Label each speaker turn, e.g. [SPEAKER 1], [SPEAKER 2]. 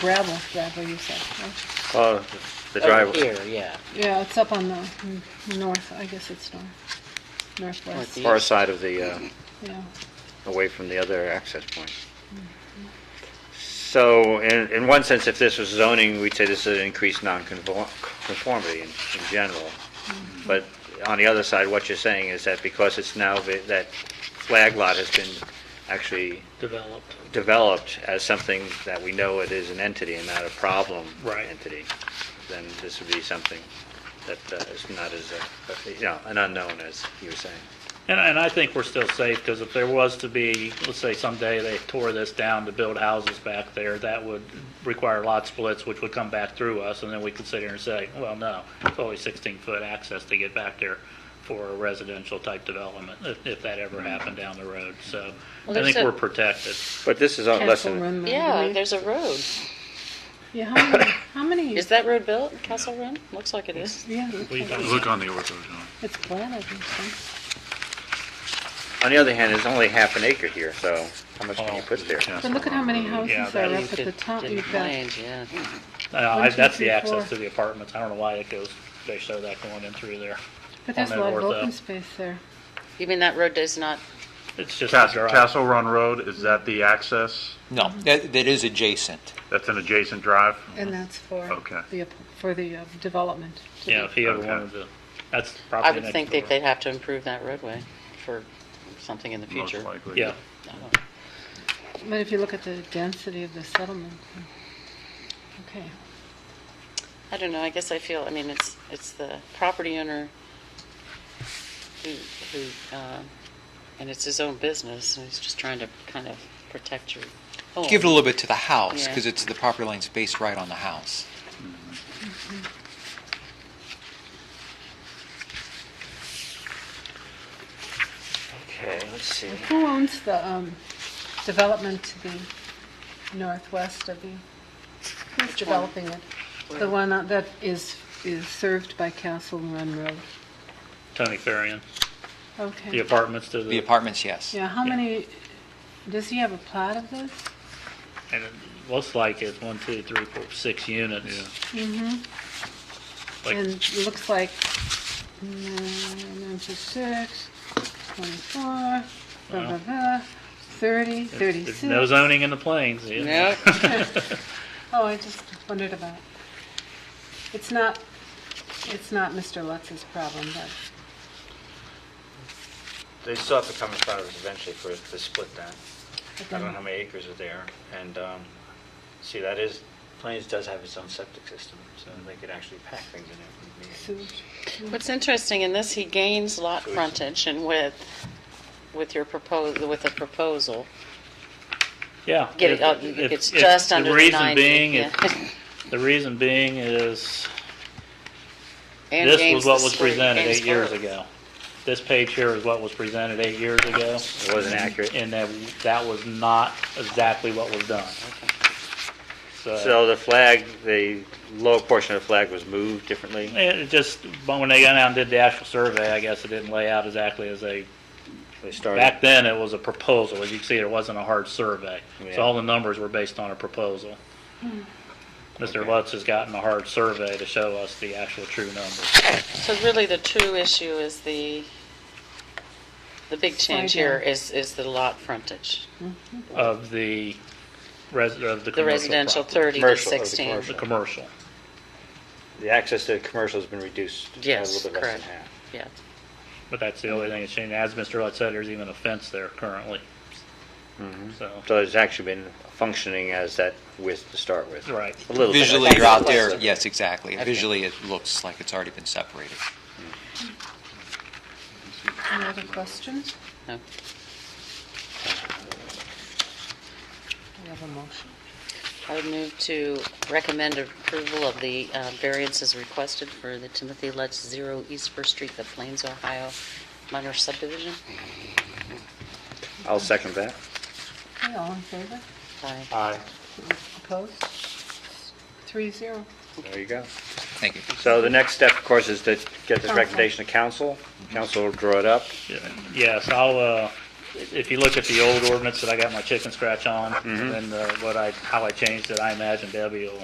[SPEAKER 1] gravel driveway, you said, right?
[SPEAKER 2] Uh, the
[SPEAKER 3] Over
[SPEAKER 2] driveway.
[SPEAKER 3] here, yeah.
[SPEAKER 1] Yeah, it's up on the mm, north, I guess it's north, northwest,
[SPEAKER 3] Northeast.
[SPEAKER 2] Far side of the, uh,
[SPEAKER 1] yeah.
[SPEAKER 2] away from the other access point. So in, in one sense, if this was zoning, we'd say this is an increased nonconformity in, in general. But on the other side, what you're saying is that because it's now, the- that flag lot has been actually
[SPEAKER 4] developed.
[SPEAKER 2] developed as something that we know it is an entity and not a problem
[SPEAKER 4] Right.
[SPEAKER 2] entity, then this would be something that uh, is not as, uh, you know, an unknown, as you were saying.
[SPEAKER 4] And, and I think we're still safe, because if there was to be, let's say someday they tore this down to build houses back there, that would require lot splits, which would come back through us, and then we could sit here and say, well, no, it's only 16-foot access to get back there for a residential-type development, if, if that ever happened down the road. So I
[SPEAKER 3] Well, there's
[SPEAKER 4] think
[SPEAKER 3] a-
[SPEAKER 4] we're protected.
[SPEAKER 2] But this is, all-
[SPEAKER 1] Castle
[SPEAKER 2] listen,
[SPEAKER 1] Run. though,
[SPEAKER 3] Yeah,
[SPEAKER 1] right?
[SPEAKER 3] there's a road.
[SPEAKER 1] Yeah, how many, how many?
[SPEAKER 3] Is that road built, Castle Run? Looks like it is.
[SPEAKER 1] Yeah,
[SPEAKER 4] We don't-
[SPEAKER 5] Look on the ortho, John.
[SPEAKER 1] it's flat, I think, so.
[SPEAKER 2] on the other hand, it's only half an acre here, so how much can Oh, you put there?
[SPEAKER 5] Castle
[SPEAKER 1] But look at how many
[SPEAKER 5] Road.
[SPEAKER 4] Yeah,
[SPEAKER 1] houses
[SPEAKER 4] that
[SPEAKER 1] are
[SPEAKER 3] You
[SPEAKER 1] up at the
[SPEAKER 3] could-
[SPEAKER 1] top,
[SPEAKER 3] didn't
[SPEAKER 1] you've got,
[SPEAKER 3] land, yeah.
[SPEAKER 4] Uh, I-
[SPEAKER 1] two,
[SPEAKER 4] That's
[SPEAKER 1] three,
[SPEAKER 4] the
[SPEAKER 1] four.
[SPEAKER 4] access to the apartments. I don't know why it goes, they show that going in through there.
[SPEAKER 1] but there's a
[SPEAKER 4] on
[SPEAKER 1] lot of
[SPEAKER 4] that north uh,
[SPEAKER 1] open
[SPEAKER 4] up.
[SPEAKER 1] space there.
[SPEAKER 3] You mean that road does not,
[SPEAKER 4] It's just a
[SPEAKER 5] Castle,
[SPEAKER 4] drive.
[SPEAKER 5] Castle Run Road, is that the access?
[SPEAKER 6] No, that, that is adjacent.
[SPEAKER 5] That's an adjacent drive?
[SPEAKER 1] And that's for
[SPEAKER 5] Okay.
[SPEAKER 1] the, ap- for the uh, development. to be-
[SPEAKER 4] Yeah, if he ever
[SPEAKER 5] Okay.
[SPEAKER 4] wanted to, that's
[SPEAKER 3] I
[SPEAKER 4] probably
[SPEAKER 3] would
[SPEAKER 4] next
[SPEAKER 3] think that
[SPEAKER 4] door.
[SPEAKER 3] they'd have to improve that roadway for something in the
[SPEAKER 5] Most
[SPEAKER 3] future.
[SPEAKER 5] likely.
[SPEAKER 3] I
[SPEAKER 4] Yeah.
[SPEAKER 3] don't know.
[SPEAKER 1] But if you look at the density of the settlement, okay.
[SPEAKER 3] I don't know, I guess I feel, I mean, it's, it's the property owner who, who, um, and it's his own business, and he's just trying to kind of protect your home.
[SPEAKER 6] Give it a little bit to the house,
[SPEAKER 3] Yeah.
[SPEAKER 6] because it's, the property line's based right on the house.
[SPEAKER 2] Okay, let's see.
[SPEAKER 1] Who owns the um, development to the northwest of you? Who's
[SPEAKER 3] Which one?
[SPEAKER 1] developing it? The one that that is, is served by Castle Run Road?
[SPEAKER 4] Tony Farian, the
[SPEAKER 1] Okay.
[SPEAKER 4] apartments to
[SPEAKER 6] The
[SPEAKER 4] the,
[SPEAKER 6] apartments, yes.
[SPEAKER 1] Yeah, how many, does he have a plot of this?
[SPEAKER 4] and it looks like it's one, two, three, four, six units. Like-
[SPEAKER 1] And it looks like mm, 96, 24, blah, blah, blah, 30,
[SPEAKER 4] There's no
[SPEAKER 1] 36.
[SPEAKER 4] zoning in the plains. yeah.
[SPEAKER 3] No,
[SPEAKER 1] Oh, I just wondered about. it. It's not, it's not Mr. Lutz's problem, but,
[SPEAKER 2] They still have to come in front of us eventually for the split then. I don't know how
[SPEAKER 1] but
[SPEAKER 2] many acres are there, and, um, see, that is, Plains does have its own septic system, so they could actually pack things in there.
[SPEAKER 1] then
[SPEAKER 3] What's interesting in this, he gains lot frontage and with, with your propos, with a proposal.
[SPEAKER 4] Yeah.
[SPEAKER 3] Get it,
[SPEAKER 4] if-
[SPEAKER 3] uh,
[SPEAKER 4] if-
[SPEAKER 3] it's
[SPEAKER 4] if
[SPEAKER 3] just under the 90.
[SPEAKER 4] reason being,
[SPEAKER 3] yeah.
[SPEAKER 4] if- The reason being is,
[SPEAKER 3] And
[SPEAKER 4] this
[SPEAKER 3] gains
[SPEAKER 4] was
[SPEAKER 3] the
[SPEAKER 4] what was
[SPEAKER 3] square-
[SPEAKER 4] presented
[SPEAKER 3] gains
[SPEAKER 4] eight years
[SPEAKER 3] both.
[SPEAKER 4] ago. This page here is what was presented eight years ago,
[SPEAKER 2] It wasn't accurate.
[SPEAKER 4] and that, that was not exactly what was done.
[SPEAKER 2] So the flag, the lower portion of the flag was moved differently?
[SPEAKER 4] It it just, but when they got out and did the actual survey, I guess it didn't lay out exactly as they,
[SPEAKER 2] They started,
[SPEAKER 4] back then, it was a proposal. As you can see, there wasn't a hard survey.
[SPEAKER 2] Yeah. Hmm.
[SPEAKER 4] So all the numbers were based on a proposal. Mr.
[SPEAKER 2] Okay.
[SPEAKER 4] Lutz has gotten a hard survey to show us the actual true numbers.
[SPEAKER 3] So really, the true issue is the, the big change
[SPEAKER 1] Slide
[SPEAKER 3] here
[SPEAKER 1] down.
[SPEAKER 3] is, is the lot frontage.
[SPEAKER 4] of the res, of the commercial.
[SPEAKER 3] The residential 30
[SPEAKER 4] property.
[SPEAKER 3] to
[SPEAKER 2] Commercial, of the
[SPEAKER 3] 16.
[SPEAKER 4] The commercial.
[SPEAKER 2] the access to commercial has been reduced a
[SPEAKER 3] Yes,
[SPEAKER 2] little bit less than
[SPEAKER 3] correct.
[SPEAKER 2] half.
[SPEAKER 3] Yeah,
[SPEAKER 4] But that's the only thing that's changed. As Mr. Lutz said, there's even a fence there currently.
[SPEAKER 2] Mm-hmm.
[SPEAKER 4] So,
[SPEAKER 2] So it's actually been functioning as that width to start with.
[SPEAKER 4] right.
[SPEAKER 2] A little bit.
[SPEAKER 6] Visually,
[SPEAKER 3] That's
[SPEAKER 6] you're out
[SPEAKER 3] the
[SPEAKER 6] there,
[SPEAKER 3] question.
[SPEAKER 6] yes, exactly.
[SPEAKER 3] Okay.
[SPEAKER 6] Visually, it looks like it's already been separated.
[SPEAKER 1] any other questions?
[SPEAKER 3] no.
[SPEAKER 1] We have a motion.
[SPEAKER 3] I would move to recommend approval of the uh, variances requested for the Timothy Lutz Zero East First Street, the Plains, Ohio minor subdivision.
[SPEAKER 2] I'll second that.
[SPEAKER 1] Okay, all in favor?
[SPEAKER 3] Aye.
[SPEAKER 2] Aye.
[SPEAKER 1] Opposed? Three zero.
[SPEAKER 2] There you go.
[SPEAKER 6] Thank you.
[SPEAKER 2] So the next step, of course, is to get this recommendation to council. Council will draw it up.
[SPEAKER 4] Yes, I'll, uh, if you look at the old ordinance that I got my chicken scratch on, and then uh, what I, how I changed it, I imagine Debbie will